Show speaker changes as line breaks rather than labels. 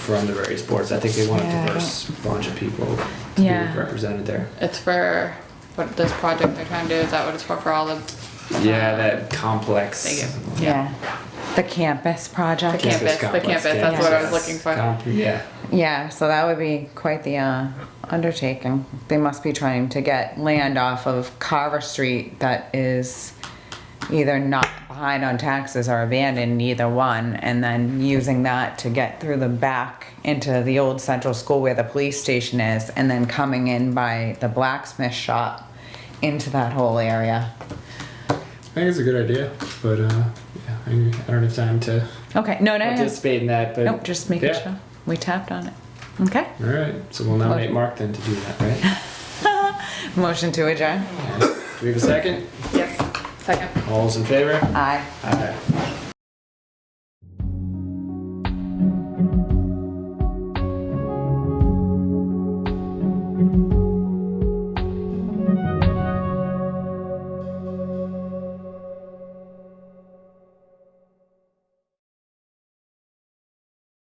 from the various boards. I think they want a
Yeah, I
diverse bunch of people to
Yeah.
be represented there.
It's for what this project they're trying to do. Is that what it's for? For all the
Yeah, that complex.
Thank you.
Yeah. The campus
the
project.
Campus
campus, the
complex,
campus. That's what I was looking for.
Comp- yeah.
Yeah, so that would be quite the uh, undertaking. They must be trying to get land off of Carver Street that is either not behind on taxes or abandoned, either one, and then using that to get through the back into the old central school where the police station is, and then coming in by the blacksmith shop into that whole area.
I think it's a good idea, but uh, yeah, I, I don't have time to
Okay, no,
Eh.
no, no.
participate in that. But
Nope, just making
yeah.
sure. We tapped on it. Okay.
All right, so we'll nominate Mark then to do that, right?
Motion to adjourn.
do we have a second?
Yes. Second.
All those in favor?
Aye.
Aye.